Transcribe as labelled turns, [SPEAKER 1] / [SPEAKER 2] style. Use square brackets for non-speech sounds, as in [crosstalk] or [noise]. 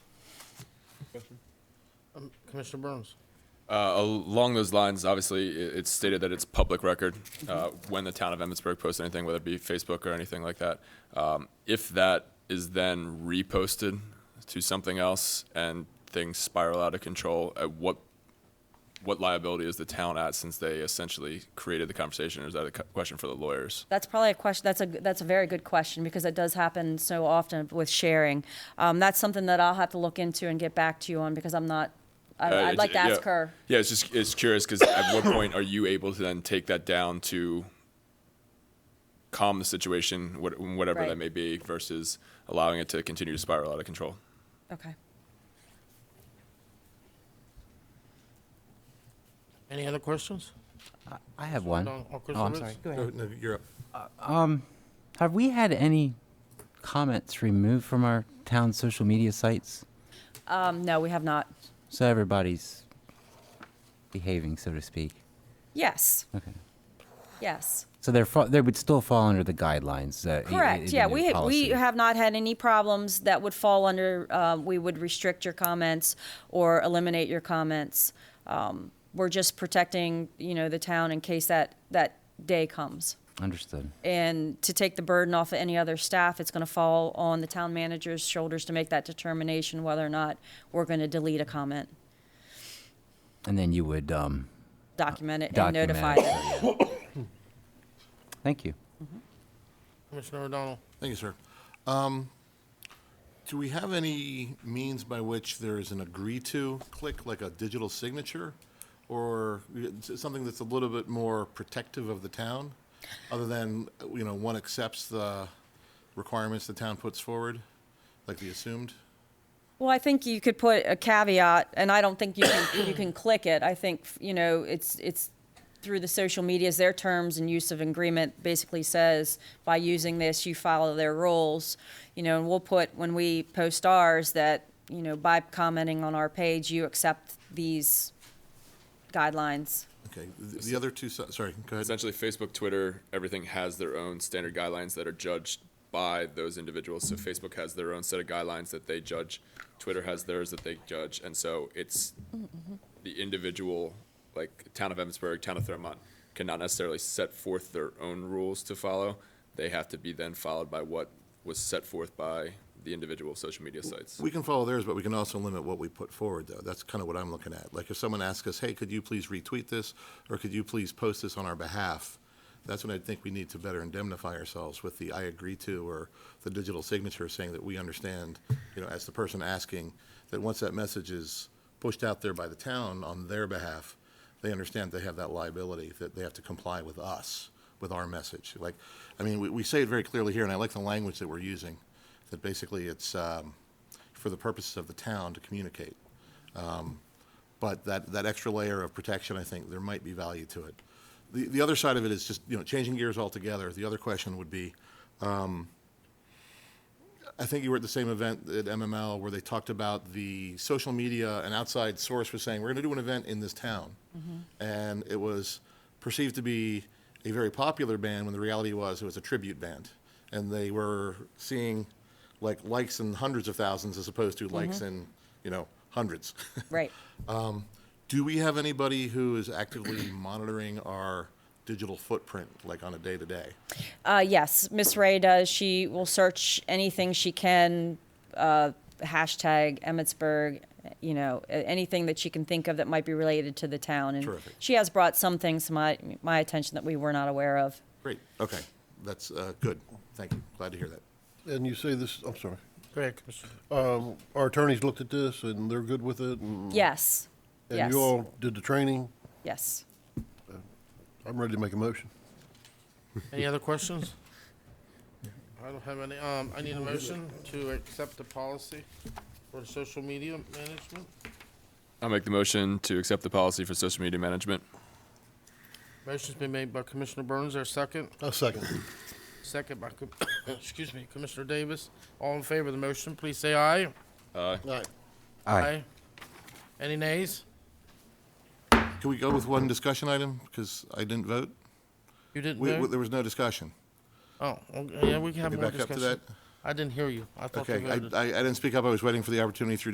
[SPEAKER 1] Um, Commissioner Burns.
[SPEAKER 2] Uh, along those lines, obviously, i- it's stated that it's public record uh, when the town of Emmitsburg posts anything, whether it be Facebook or anything like that. Um, if that is then reposted to something else and things spiral out of control, at what what liability is the town at since they essentially created the conversation? Or is that a cu- question for the lawyers?
[SPEAKER 3] That's probably a question, that's a, that's a very good question, because that does happen so often with sharing. Um, that's something that I'll have to look into and get back to you on, because I'm not, I-
[SPEAKER 2] Uh,
[SPEAKER 3] I'd like to
[SPEAKER 2] it's-
[SPEAKER 3] ask
[SPEAKER 2] yeah.
[SPEAKER 3] her.
[SPEAKER 2] Yeah, it's just it's curious because at
[SPEAKER 3] [coughs]
[SPEAKER 2] what point are you able to then take that down to calm the situation, what, whatever
[SPEAKER 3] Right.
[SPEAKER 2] that may be, versus allowing it to continue to spiral out of control?
[SPEAKER 3] Okay.
[SPEAKER 1] Any other questions?
[SPEAKER 4] I have one.
[SPEAKER 1] No, or
[SPEAKER 4] Oh,
[SPEAKER 1] Chris
[SPEAKER 4] I'm
[SPEAKER 1] Roots?
[SPEAKER 4] sorry.
[SPEAKER 5] Go, no, you're up.
[SPEAKER 4] Have we had any comments removed from our town social media sites?
[SPEAKER 3] Um, no, we have not.
[SPEAKER 4] So everybody's behaving, so to speak.
[SPEAKER 3] Yes,
[SPEAKER 4] Okay.
[SPEAKER 3] yes.
[SPEAKER 4] So they're fa- they would still fall under the guidelines. Uh, e- e-
[SPEAKER 3] Correct,
[SPEAKER 4] the
[SPEAKER 3] yeah,
[SPEAKER 4] new
[SPEAKER 3] we, ha- we
[SPEAKER 4] policy.
[SPEAKER 3] have not had any problems that would fall under, uh, we would restrict your comments or eliminate your comments. Um, We're just protecting, you know, the town in case that, that day comes.
[SPEAKER 4] understood.
[SPEAKER 3] And to take the burden off of any other staff, it's gonna fall on the town manager's shoulders to make that determination whether or not we're gonna delete a comment,
[SPEAKER 4] And then you would. Um,
[SPEAKER 3] document it, and
[SPEAKER 4] Document
[SPEAKER 3] notify
[SPEAKER 4] it.
[SPEAKER 3] them.
[SPEAKER 4] thank you.
[SPEAKER 1] Commissioner O'Donnell.
[SPEAKER 5] Thank you, sir. Um, do we have any means by which there is an agree to click, like a digital signature? Or s- something that's a little bit more protective of the town, other than, you know, one accepts the requirements the town puts forward, like the assumed?
[SPEAKER 3] Well, I think you could put a caveat, and I don't think you can, you can click it. I think, you know, it's, it's through the social medias, their terms and use of agreement basically says, by using this, you follow their rules. You know, and we'll put, when we post ours, that, you know, by commenting on our page, you accept these guidelines.
[SPEAKER 5] Okay, the the other two, si- sorry, go ahead.
[SPEAKER 2] Essentially, Facebook, Twitter, everything has their own standard guidelines that are judged by those individuals. So Facebook has their own set of guidelines that they judge, Twitter has theirs that they judge, and so it's the individual, like town of Evansburg, town of Thurmont, cannot necessarily set forth their own rules to follow. They have to be then followed by what was set forth by the individual social media sites.
[SPEAKER 5] We can follow theirs, but we can also limit what we put forward, though. That's kind of what I'm looking at. Like, if someone asks us, hey, could you please retweet this, or could you please post this on our behalf? That's when I think we need to better indemnify ourselves with the I agree to or the digital signature saying that we understand, you know, as the person asking, that once that message is pushed out there by the town on their behalf, they understand they have that liability, that they have to comply with us, with our message. Like, I mean, we, we say it very clearly here, and I like the language that we're using, that basically it's, um, for the purposes of the town to communicate. Um, But that, that extra layer of protection, I think, there might be value to it. The, the other side of it is just, you know, changing gears altogether. The other question would be, I think you were at the same event at MML where they talked about the social media, an outside source was saying, we're going to do an event in this town. And it was perceived to be a very popular band when the reality was it was a tribute band. And they were seeing like likes in hundreds of thousands as opposed to likes in, you know, hundreds. [laughs]
[SPEAKER 3] Right.
[SPEAKER 5] Do we have anybody who is actively [coughs] monitoring our digital footprint, like on a day to day?
[SPEAKER 3] Uh, yes, Miss Ray does. She will search anything she can, uh, hashtag Emmitsburg, you know, a- anything that she can think of that might be related to the town. And
[SPEAKER 5] Terrific.
[SPEAKER 3] she has brought some things to my, my attention that we were not aware of.
[SPEAKER 5] Great, okay, that's uh, good, thank you, glad to hear that.
[SPEAKER 6] And you say this, I'm sorry,
[SPEAKER 1] Go ahead, Commissioner.
[SPEAKER 6] um, our attorneys looked at this and they're good with it and.
[SPEAKER 3] Yes,
[SPEAKER 6] And
[SPEAKER 3] yes,
[SPEAKER 6] you all did the training.
[SPEAKER 3] yes.
[SPEAKER 6] I'm ready to make a motion.
[SPEAKER 1] Any other questions? I don't have any. Um, I need a motion to accept the policy for social media management.
[SPEAKER 2] I'll make the motion to accept the policy for social media management.
[SPEAKER 1] Motion's been made by Commissioner Burns, our second.
[SPEAKER 6] A second.
[SPEAKER 1] Second by, Com- [coughs] excuse me, Commissioner Davis. All in favor of the motion, please say aye.
[SPEAKER 2] Aye.
[SPEAKER 6] Aye.
[SPEAKER 1] Any nays?
[SPEAKER 5] Can we go with one discussion item? Because I didn't vote.
[SPEAKER 1] You didn't
[SPEAKER 5] We, we-
[SPEAKER 1] vote?
[SPEAKER 5] there was no discussion.
[SPEAKER 1] Oh, okay, yeah, we can have
[SPEAKER 5] Can we
[SPEAKER 1] more
[SPEAKER 5] back up to
[SPEAKER 1] discussion.
[SPEAKER 5] that?
[SPEAKER 1] I didn't hear you. I thought you
[SPEAKER 5] Okay, I,
[SPEAKER 1] voted.
[SPEAKER 5] I I didn't speak up. I was waiting for the opportunity through